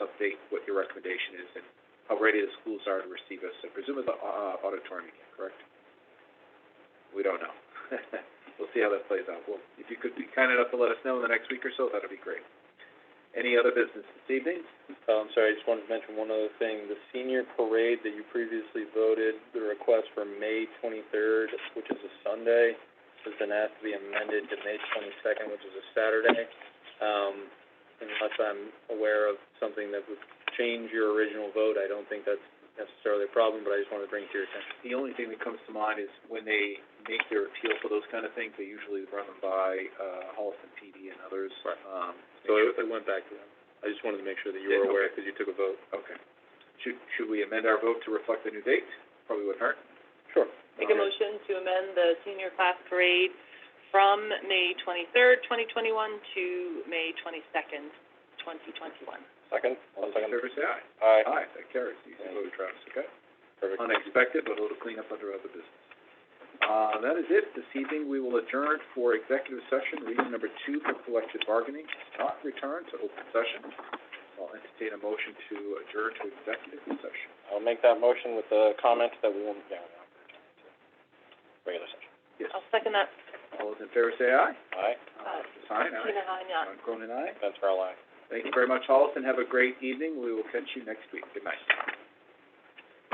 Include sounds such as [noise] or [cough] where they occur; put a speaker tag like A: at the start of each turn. A: state what your recommendation is and how ready the schools are to receive us. I presume it's, a- uh, auditorium again, correct? We don't know. [laughs] We'll see how that plays out. Well, if you could be kind enough to let us know in the next week or so, that'd be great. Any other business this evening?
B: Oh, I'm sorry, I just wanted to mention one other thing. The senior parade that you previously voted, the request for May twenty-third, which is a Sunday, has been asked to be amended to May twenty-second, which is a Saturday. Um, unless I'm aware of something that would change your original vote, I don't think that's necessarily a problem, but I just wanted to bring it to your attention.
A: The only thing that comes to mind is when they make their appeal for those kind of things, they usually run them by, uh, Holliston PD and others.
B: Right.
A: Um,
B: So it, it went back to them. I just wanted to make sure that you
A: Yeah,
B: were aware,
A: okay.
B: because you took a vote.
A: Okay. Should, should we amend our vote to reflect the new date? Probably wouldn't hurt.
B: Sure.
C: Make a motion to amend the senior class parade from May twenty-third, twenty twenty-one to May twenty-second, twenty twenty-one.
B: Second?
A: All those in favor say aye.
B: Aye.
A: Aye, that carries. You can vote, Travis, okay?
B: Perfect.
A: Unexpected, but a little cleanup under other business. Uh, that is it. This evening, we will adjourn for executive session, reason number two for collective bargaining, not return to open session. I'll entertain a motion to adjourn to executive session.
B: I'll make that motion with the comment that we will, yeah, we're not gonna turn it to regular session.
A: Yes.
C: I'll second that.
A: All those in favor say aye.
B: Aye,
C: Aye.
A: Sign aye.
C: Tina Hine, aye.
A: Ron Cronin, aye.
B: Vince Farrell, aye.
A: Thank you very much, Hollis, and have a great evening. We will catch you next week. Good night.